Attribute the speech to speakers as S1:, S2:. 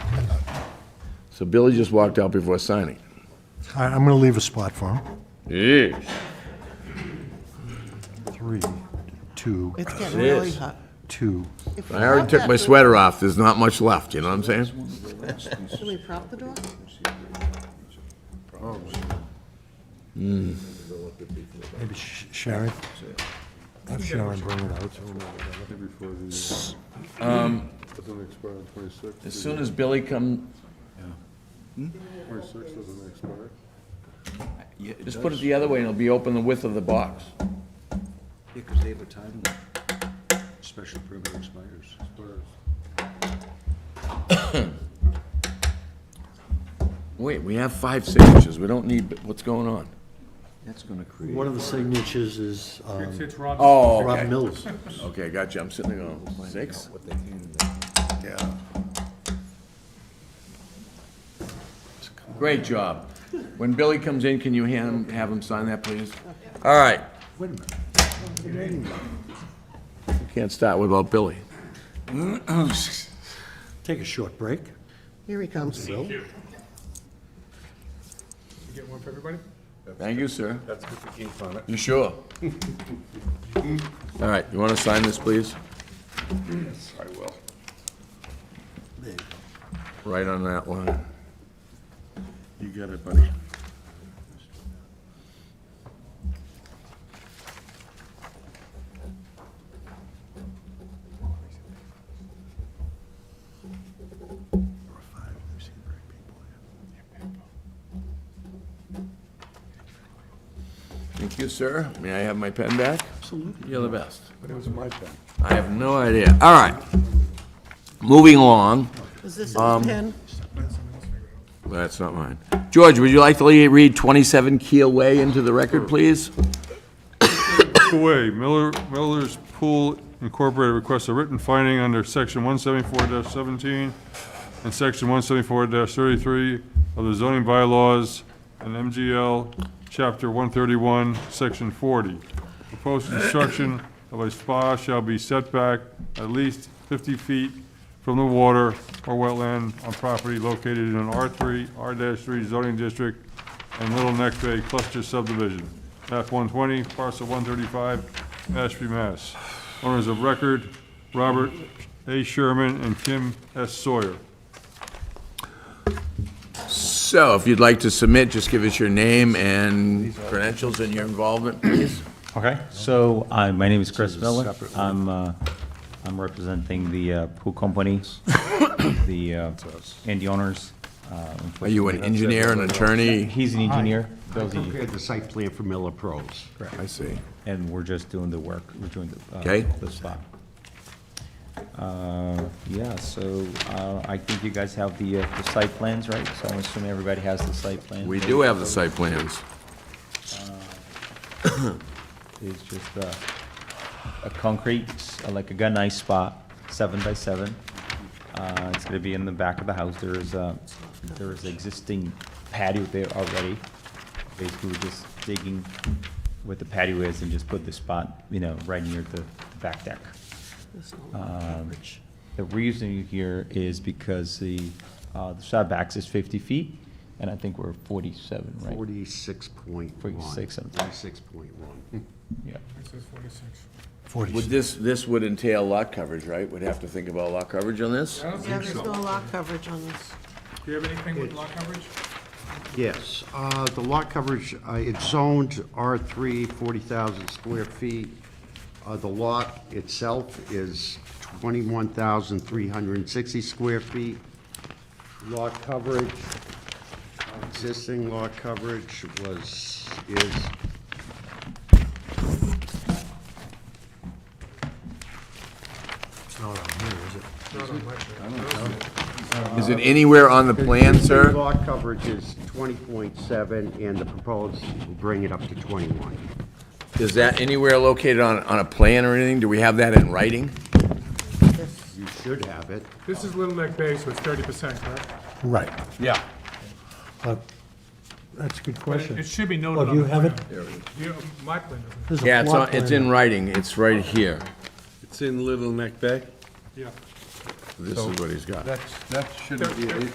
S1: So Billy just walked out before signing.
S2: I, I'm gonna leave a spot for him.
S1: Yes.
S2: Three, two,
S3: It's getting really
S1: Yes.
S3: hot.
S2: two.
S3: If we
S1: I already
S3: prop
S1: took
S3: that
S1: my
S3: door-
S1: sweater off, there's not much left, you know what I'm saying?
S3: Should we prop the door?
S2: Maybe Sh- Sharon? Have Sharon bring it out.
S4: um,
S5: Doesn't expire on twenty-six.
S6: As soon as Billy come,
S5: Twenty-six doesn't expire.
S6: just put it the other way and it'll be open the width of the box.
S7: Because they have a time limit. Special permit expires.
S6: Wait, we have five signatures, we don't need, what's going on?
S7: That's gonna create.
S2: One of the signatures is, um,
S4: It's Rob.
S6: Oh,
S2: Rob
S6: okay,
S2: Mills.
S6: okay, gotcha, I'm sitting there going, six?
S1: Yeah.
S6: Great job. When Billy comes in, can you hand him, have him sign that, please? All right.
S1: You can't start without Billy.
S2: Take a short break.
S3: Here he comes.
S4: You get one for everybody?
S6: Thank you, sir.
S5: That's with the ink on it.
S6: You sure? All right, you want to sign this, please?
S5: I will.
S6: Right on that line.
S5: You get it, buddy.
S6: Thank you, sir. May I have my pen back? Absolutely. You're the best.
S5: But it was my pen.
S6: I have no idea. All right. Moving along.
S3: Is this his
S1: Um,
S3: pen?
S6: That's not mine. George, would you like to le- read 27 Keel Way into the record, please?
S4: Away, Miller, Miller's Pool Incorporated requests a written finding under section one seventy-four seventeen and section one seventy-four thirty-three of the zoning bylaws and MGL, chapter one thirty-one, section forty. Proposed construction of a spa shall be set back at least fifty feet from the water or wetland on property located in an R three, R three zoning district and Little Neck Bay Cluster Subdivision, map one twenty, parcel one thirty-five, Mashpee, Mass. Owners of record, Robert A. Sherman and Kim S. Sawyer.
S6: So if you'd like to submit, just give us your name and credentials and your involvement, please.
S8: Okay, so uh, my name is Chris Miller. I'm, uh, I'm representing the uh, pool company, the, uh, and the owners. Uh,
S6: Are you an engineer, an attorney?
S8: He's an engineer, Bill's an engineer,
S7: Compared the site plan for Miller Pros.
S6: I see.
S8: and we're just doing the work, we're doing the. uh,
S6: Okay.
S8: The spot. Uh, Yeah, so uh, I think you guys have the, uh, the site plans, right? So I'm assuming everybody has the site plan.
S6: We do have the site plans.
S8: It's just a, a concrete, s- like a gun ice spot, seven by seven. Uh, it's gonna be in the back of the house, there is a, there is existing patio there already. Basically, we're just digging where the patio is and just put the spot, you know, right near the back deck. Um,
S3: This one, average.
S8: The reasoning here is because the, uh, the setbacks is fifty feet, and I think we're forty-seven, right?
S7: Forty-six point one.
S8: 46 something.
S7: Forty-six point one.
S8: Yeah.
S6: Would this, this would entail lot coverage, right? We'd have to think about lot coverage on this?
S3: Yeah, there's no lock coverage on this.
S4: Do you have anything with lot coverage?
S7: Yes, uh, the lot coverage, uh, it's zoned R three, forty thousand square feet. Uh, the lot itself is twenty-one thousand three hundred and sixty square feet. Lot coverage, existing lot coverage was, is
S2: It's not on here, is it?
S6: Is it anywhere on the plan,
S7: The
S6: sir?
S7: Lot coverage is twenty point seven, and the proposed will bring it up to twenty-one.
S6: Is that anywhere located on, on a plan or anything? Do we have that in writing?
S7: You should have it.
S4: This is Little Neck Bay, so it's thirty percent, correct?
S2: Right.
S6: Yeah.
S2: Uh, That's a good question.
S4: It should be
S2: Oh,
S4: noted
S2: do
S4: on
S2: you
S4: the
S2: have
S4: plan.
S2: it?
S4: You- My plan doesn't,
S2: There's a
S6: Yeah, it's,
S2: plot
S6: on- it's
S2: plan.
S6: in writing, it's right here.
S5: It's in Little Neck Bay?
S4: yeah.
S6: This is what he's got.
S5: That's, that shouldn't be,